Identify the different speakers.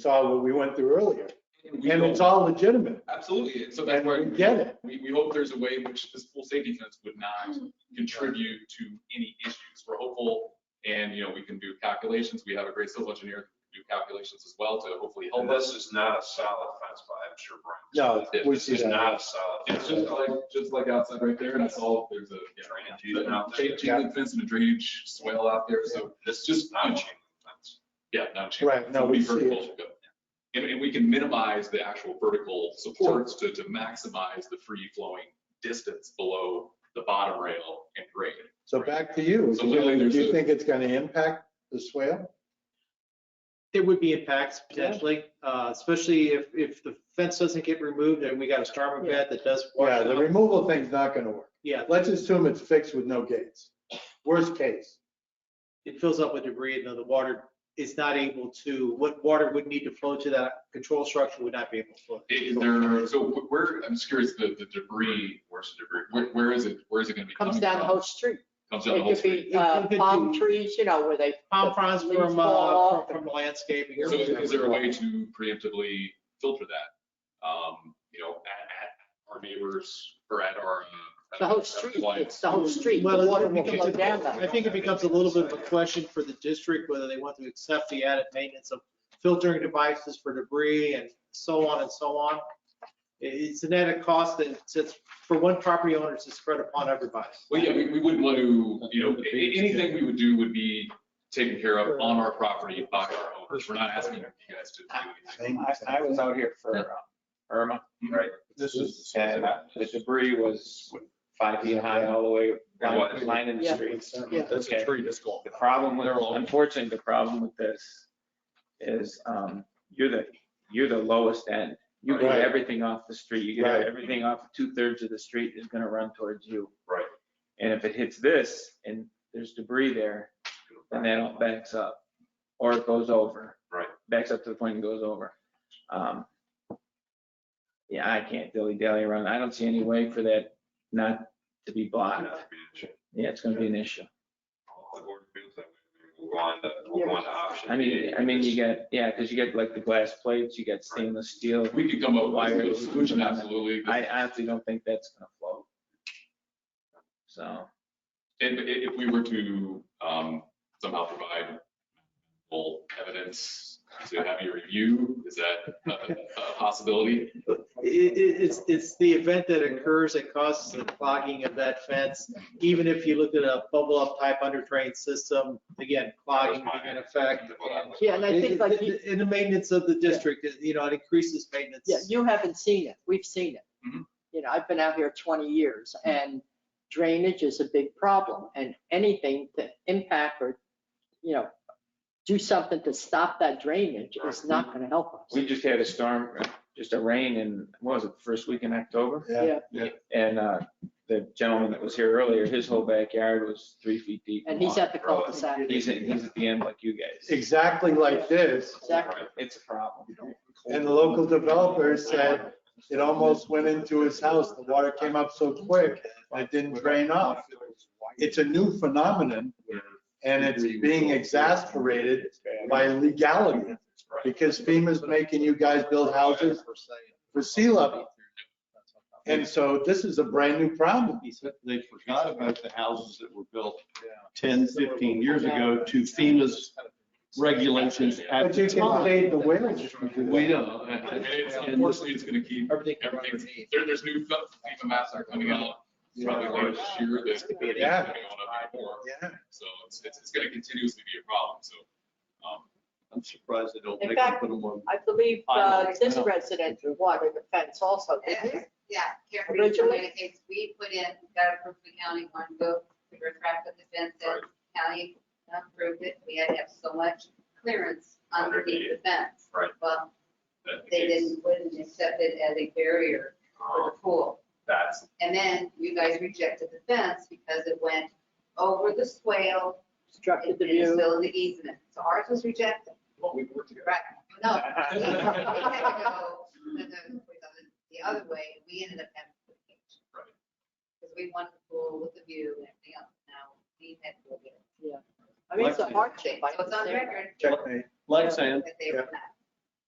Speaker 1: saw what we went through earlier.
Speaker 2: We
Speaker 1: And it's
Speaker 2: hope-
Speaker 1: all legitimate.
Speaker 2: Absolutely, so that's
Speaker 1: And
Speaker 2: where.
Speaker 1: we get it.
Speaker 2: We, we hope there's a way in which this pool safety fence would not contribute to any issues. We're hopeful, and, you know, we can do calculations, we have a great civil engineer who can do calculations as well to hopefully help
Speaker 3: And
Speaker 2: us.
Speaker 3: this is not a solid fence, but I'm sure Brian.
Speaker 1: No, we
Speaker 3: This
Speaker 1: see
Speaker 3: is not a
Speaker 1: that.
Speaker 3: solid.
Speaker 2: It's just like, just like outside right there, that's all, there's a,
Speaker 3: Drainage,
Speaker 2: yeah,
Speaker 3: even out there.
Speaker 2: chain chain link fence and a drainage swale out there, so
Speaker 3: This is not a chain link fence.
Speaker 2: Yeah, not change.
Speaker 1: Right, no, we see it.
Speaker 2: And, and we can minimize the actual vertical supports to, to maximize the free flowing distance below the bottom rail and grade.
Speaker 1: So back to you.
Speaker 2: So literally
Speaker 1: Do
Speaker 2: there's
Speaker 1: you
Speaker 2: a-
Speaker 1: think it's gonna impact the swale?
Speaker 4: There would be impacts potentially, uh, especially if, if the fence doesn't get removed and we got a storm event that does. wash
Speaker 1: Yeah, the
Speaker 4: out.
Speaker 1: removal thing's not gonna work.
Speaker 4: Yeah,
Speaker 1: Let's assume it's fixed with no gates. Worst case.
Speaker 4: it fills up with debris and then the water is not able to, what water would need to flow to that control structure would not be able to flow.
Speaker 2: Is there, so wh- where, I'm just curious, the, the debris, where's the debris, where, where is it, where is it gonna be coming
Speaker 5: Comes
Speaker 2: from?
Speaker 5: down the whole street.
Speaker 2: Comes down the
Speaker 5: It
Speaker 2: whole
Speaker 5: could
Speaker 2: street.
Speaker 5: be uh,
Speaker 4: It could
Speaker 5: palm
Speaker 4: be-
Speaker 5: trees, you know, where they.
Speaker 4: Palm fronds
Speaker 5: leaves
Speaker 4: from,
Speaker 5: fall
Speaker 4: uh,
Speaker 5: off
Speaker 4: from- from landscaping. or
Speaker 2: So is is there a
Speaker 4: whatever.
Speaker 2: way to preemptively filter that? Um, you know, at, at our neighbors or at our. uh,
Speaker 5: The whole
Speaker 2: at-
Speaker 5: street,
Speaker 2: at-
Speaker 5: it's the whole street.
Speaker 4: Well,
Speaker 5: The water
Speaker 4: it
Speaker 5: will flow
Speaker 4: becomes-
Speaker 5: down
Speaker 4: I
Speaker 5: that.
Speaker 4: think it becomes a little bit of a question for the district, whether they want to accept the added maintenance of filtering devices for debris and so on and so on. It- It's an added cost that sits for one property owner to spread upon everybody.
Speaker 2: Well, yeah, we, we wouldn't want to, you know, a- a- anything we would do would be taken care of on our property by our owners. We're not asking you guys to do anything.
Speaker 6: I, I was out here for uh, Irma, right?
Speaker 1: This is.
Speaker 6: And uh, the debris was five feet high all the way, line, line in the
Speaker 5: Yeah.
Speaker 6: street.
Speaker 5: Yeah.
Speaker 6: That's a
Speaker 2: tree that's going.
Speaker 6: The problem with,
Speaker 2: They're all-
Speaker 6: unfortunately, the problem with this is, um, you're the, you're the lowest end. You get
Speaker 1: Right.
Speaker 6: everything off the street, you
Speaker 1: Right.
Speaker 6: get everything off two thirds of the street is gonna run towards you.
Speaker 2: Right.
Speaker 6: And if it hits this and there's debris there, then that all backs up, or it goes over.
Speaker 2: Right.
Speaker 6: Backs up to the point and goes over. Um, Yeah, I can't dilly dally around. I don't see any way for that not to be blocked. Yeah, it's gonna be an issue.
Speaker 3: We'll go on to, we'll go on to option.
Speaker 6: I mean,
Speaker 3: A,
Speaker 6: I mean, you
Speaker 3: which-
Speaker 6: get, yeah, because you get like the glass plates, you get stainless steel.
Speaker 2: We could come up with a solution, absolutely.
Speaker 6: I honestly don't think that's gonna float. So,
Speaker 2: And i- if we were to um, somehow provide full evidence to have your review, is that a- a possibility?
Speaker 4: It, it, it's, it's the event that occurs that causes the clogging of that fence. Even if you looked at a bubble up type under drain system, again, clogging can affect. and-
Speaker 5: Yeah, and I think like, you-
Speaker 4: In the maintenance of the district, you know, it increases maintenance.
Speaker 5: yeah, you haven't seen it. We've seen it.
Speaker 2: Mhm.
Speaker 5: You know, I've been out here 20 years
Speaker 2: Mm-hmm.
Speaker 5: and drainage is a big problem and anything to impact or, you know, do something to stop that drainage
Speaker 2: Mm-hmm.
Speaker 5: is not going to help us.
Speaker 6: we just had a storm, just a rain in, what was it, first week in October?
Speaker 1: Yeah, yeah.
Speaker 6: And uh, the gentleman that was here earlier, his whole backyard was three feet deep.
Speaker 5: And he's at the cul-de-sac.
Speaker 6: He's, at- he's at the end like you guys.
Speaker 1: Exactly like this.
Speaker 5: Exactly.
Speaker 6: It's a problem.
Speaker 1: And the local developer said it almost went into his house. The water came up so quick and it didn't drain off. It's a new phenomenon and it's being exasperated by legality because FEMA's making you guys build houses for sea level. And so this is a brand new problem.
Speaker 7: He said They forgot about the houses that were built 10, 15 years ago to FEMA's regulations at
Speaker 1: But
Speaker 7: the
Speaker 1: you can
Speaker 7: time.
Speaker 1: fade the wind.
Speaker 7: We know.
Speaker 2: And it's- Unfortunately, it's going to keep
Speaker 4: Everything.
Speaker 2: everything, there, there's new FEMA maps that are coming out probably later this year that's going to be
Speaker 1: Yeah.
Speaker 2: coming on up more.
Speaker 1: Yeah.
Speaker 2: So it's, it's, it's going to continuously be a problem, so. um,
Speaker 7: I'm surprised they don't
Speaker 5: In
Speaker 7: make them
Speaker 5: fact-
Speaker 7: put them on.
Speaker 5: I believe uh, this resident wanted a fence also, didn't he?
Speaker 8: Yeah, Carefree
Speaker 5: Originally-
Speaker 8: Communities, we put in, got approved from county one vote, we were trapped with the fence, and county approved it, we had to have so much clearance underneath the fence.
Speaker 2: Right.
Speaker 8: Well,
Speaker 2: that-
Speaker 8: they didn't, wouldn't accept it as a barrier for the pool.
Speaker 2: uh, That's,
Speaker 8: And then you guys rejected the fence because it went over the swale
Speaker 5: obstructed
Speaker 8: and
Speaker 5: the
Speaker 8: in the
Speaker 5: view.
Speaker 8: middle of the easement. So ours was rejected.
Speaker 2: well, we work together.
Speaker 8: Right, no. We had to go the- the the other way, we ended up having to put a cage.
Speaker 2: Right.
Speaker 8: Because we wanted the pool with the view and everything else, now we had to go get it.
Speaker 5: I mean, it's a
Speaker 7: Like-
Speaker 5: hardship. tá
Speaker 8: So it's on record
Speaker 1: Checkmate.
Speaker 7: Like saying,
Speaker 8: that they were not.